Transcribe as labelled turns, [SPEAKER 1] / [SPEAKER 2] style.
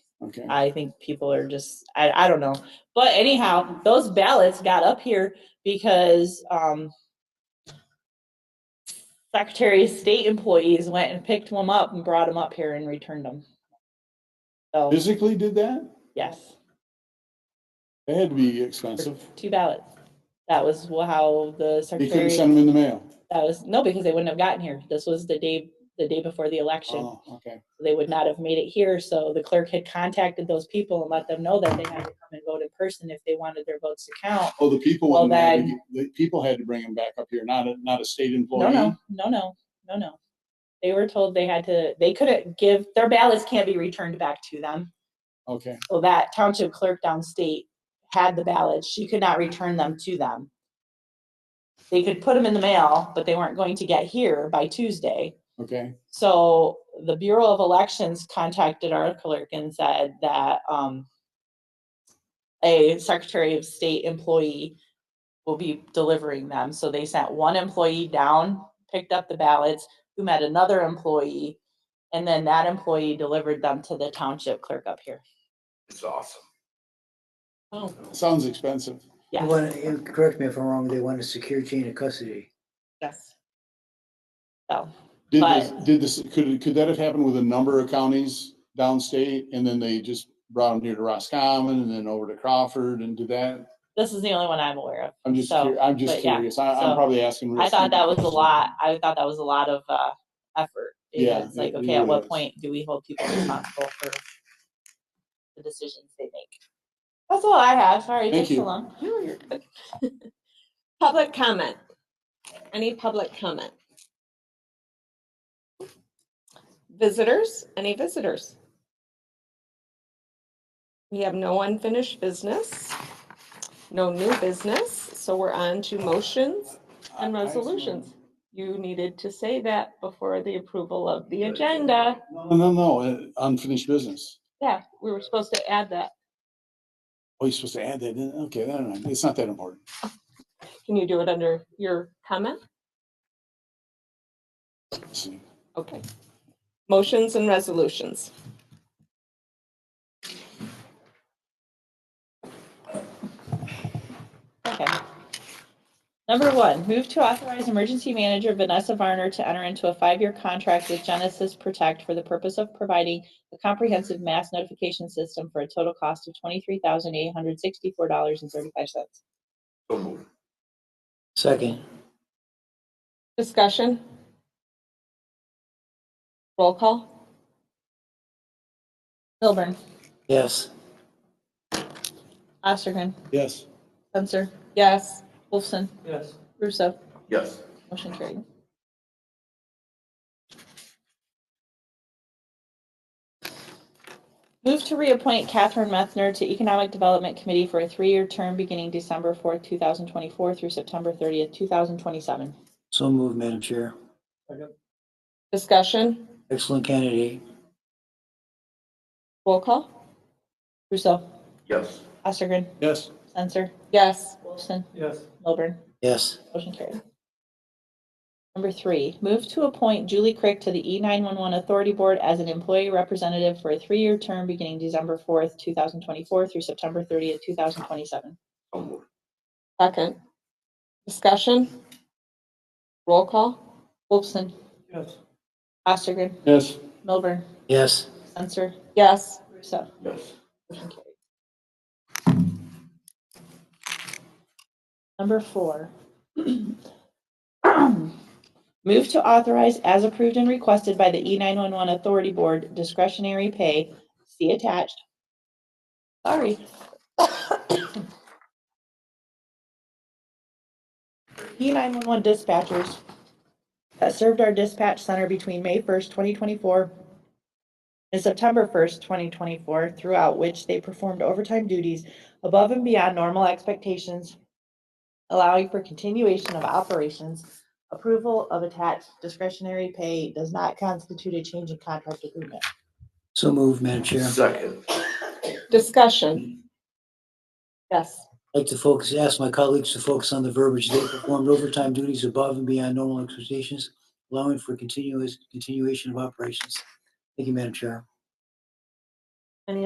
[SPEAKER 1] Okay.
[SPEAKER 2] I think people are just I, I don't know. But anyhow, those ballots got up here because um Secretary of State employees went and picked them up and brought them up here and returned them. So
[SPEAKER 1] Physically did that?
[SPEAKER 2] yes,
[SPEAKER 1] That had to be expensive.
[SPEAKER 2] two ballots. That was wha- how the
[SPEAKER 1] They couldn't
[SPEAKER 2] secretary.
[SPEAKER 1] send them in the mail.
[SPEAKER 2] That was no, because they wouldn't have gotten here. This was the day the day before the election.
[SPEAKER 1] Oh, okay.
[SPEAKER 2] they would not have made it here. So the clerk had contacted those people and let them know that they had to come and vote in person if they wanted their votes to count.
[SPEAKER 1] Oh, the people,
[SPEAKER 2] Well,
[SPEAKER 1] wouldn't have to get- the people had to bring them back up here, not a, not a state
[SPEAKER 2] No,
[SPEAKER 1] employee.
[SPEAKER 2] no, no, no, no, no. They were told they had to, they couldn't give, their ballots can't be returned back to them.
[SPEAKER 1] Okay,
[SPEAKER 2] So that township clerk downstate had the ballots. She could not return them to them. They could put them in the mail, but they weren't going to get here by Tuesday.
[SPEAKER 1] okay.
[SPEAKER 2] So the Bureau of Elections contacted our clerk and said that um, a Secretary of State employee will be delivering them. So they sent one employee down, picked up the ballots, who met another employee, and then that employee delivered them to the township clerk up here.
[SPEAKER 3] It's awesome.
[SPEAKER 2] Oh.
[SPEAKER 1] Sounds expensive.
[SPEAKER 4] They
[SPEAKER 2] Yes,
[SPEAKER 4] want, you correct me if I'm wrong, they want a secure chain of custody.
[SPEAKER 2] yes. So,
[SPEAKER 1] Did
[SPEAKER 2] But-
[SPEAKER 1] this, did this, could, could that have happened with a number of counties downstate? And then they just brought them here to Roscommon and then over to Crawford and did that?
[SPEAKER 2] this is the only one I'm aware of.
[SPEAKER 1] I'm just,
[SPEAKER 2] So,
[SPEAKER 1] curi- I'm just
[SPEAKER 2] but yeah,
[SPEAKER 1] curious. I,
[SPEAKER 2] so
[SPEAKER 1] I'm probably asking. real
[SPEAKER 2] I thought that was
[SPEAKER 1] stupid
[SPEAKER 2] a lot, I thought that was a lot of uh, effort.
[SPEAKER 1] Yeah,
[SPEAKER 2] It's like,
[SPEAKER 1] it- it
[SPEAKER 2] okay, at
[SPEAKER 1] really
[SPEAKER 2] what
[SPEAKER 1] is.
[SPEAKER 2] point do we hold people responsible for the decisions they make? That's all I have, sorry, it
[SPEAKER 1] Thank
[SPEAKER 2] took so
[SPEAKER 1] you.
[SPEAKER 2] long.
[SPEAKER 5] Public comment. Any public comment? Visitors? Any visitors? We have no unfinished business, no new business, so we're on to motions
[SPEAKER 1] I- I
[SPEAKER 5] and
[SPEAKER 1] assume-
[SPEAKER 5] resolutions. You needed to say that before the approval of the agenda.
[SPEAKER 1] No, no, no, uh, unfinished business.
[SPEAKER 5] Yeah, we were supposed to add that.
[SPEAKER 1] Oh, you're supposed to add that in? Okay, no, no, no, it's not that important.
[SPEAKER 5] Can you do it under your comment?
[SPEAKER 1] Let's see.
[SPEAKER 5] Okay. Motions and resolutions.
[SPEAKER 2] Okay. Number one, move to authorize emergency manager Vanessa Varner to enter into a five-year contract with Genesis Protect for the purpose of providing a comprehensive mass notification system for a total cost of twenty-three thousand eight hundred sixty-four dollars and thirty-five cents.
[SPEAKER 3] So moved.
[SPEAKER 4] Second.
[SPEAKER 5] Discussion? Roll call?
[SPEAKER 2] Milburn,
[SPEAKER 4] Yes.
[SPEAKER 2] Ostergren,
[SPEAKER 1] Yes,
[SPEAKER 2] Spencer,
[SPEAKER 5] Yes.
[SPEAKER 2] Wolfson,
[SPEAKER 4] Yes.
[SPEAKER 2] Russo.
[SPEAKER 3] Yes,
[SPEAKER 2] Motion carried. Move to reappoint Catherine Methner to Economic Development Committee for a three-year term beginning December fourth, two thousand twenty-four through September thirtieth, two thousand twenty-seven.
[SPEAKER 4] So moved, Madam Chair.
[SPEAKER 5] Discussion?
[SPEAKER 4] Excellent candidate.
[SPEAKER 5] Roll call?
[SPEAKER 2] Russo,
[SPEAKER 3] yes,
[SPEAKER 2] Ostergren,
[SPEAKER 1] yes,
[SPEAKER 2] Censor,
[SPEAKER 5] Yes.
[SPEAKER 2] Wolfson,
[SPEAKER 4] Yes.
[SPEAKER 2] Milburn.
[SPEAKER 4] Yes.
[SPEAKER 2] Motion carried. Number three, move to appoint Julie Crick to the E E911 Authority Board as an employee representative for a three-year term beginning December 4th, 2024 through September 30th, 2027.
[SPEAKER 3] so moved.
[SPEAKER 5] Second. Discussion? Roll call?
[SPEAKER 2] Wolfson,
[SPEAKER 4] Yes.
[SPEAKER 2] Ostergren,
[SPEAKER 1] yes,
[SPEAKER 2] Milburn,
[SPEAKER 4] Yes.
[SPEAKER 2] Censor,
[SPEAKER 5] Yes.
[SPEAKER 2] Russo.
[SPEAKER 3] yes,
[SPEAKER 2] Motion carried. Number four. Move to authorize as approved and requested by the E E911 Authority Board discretionary pay, see attached. Sorry. E E911 dispatchers that served our dispatch center between May 1st, 2024 and September 1st, 2024, throughout which they performed overtime duties above and beyond normal expectations, allowing for continuation of operations. Approval of attached discretionary pay does not constitute a change in contract agreement.
[SPEAKER 4] So moved, Madam Chair.
[SPEAKER 3] second,
[SPEAKER 5] Discussion? Yes.
[SPEAKER 4] I'd like to focus, ask my colleagues to focus on the verbiage. They performed overtime duties above and beyond normal expectations, allowing for continuous, continuation of operations. Thank you, Madam Chair.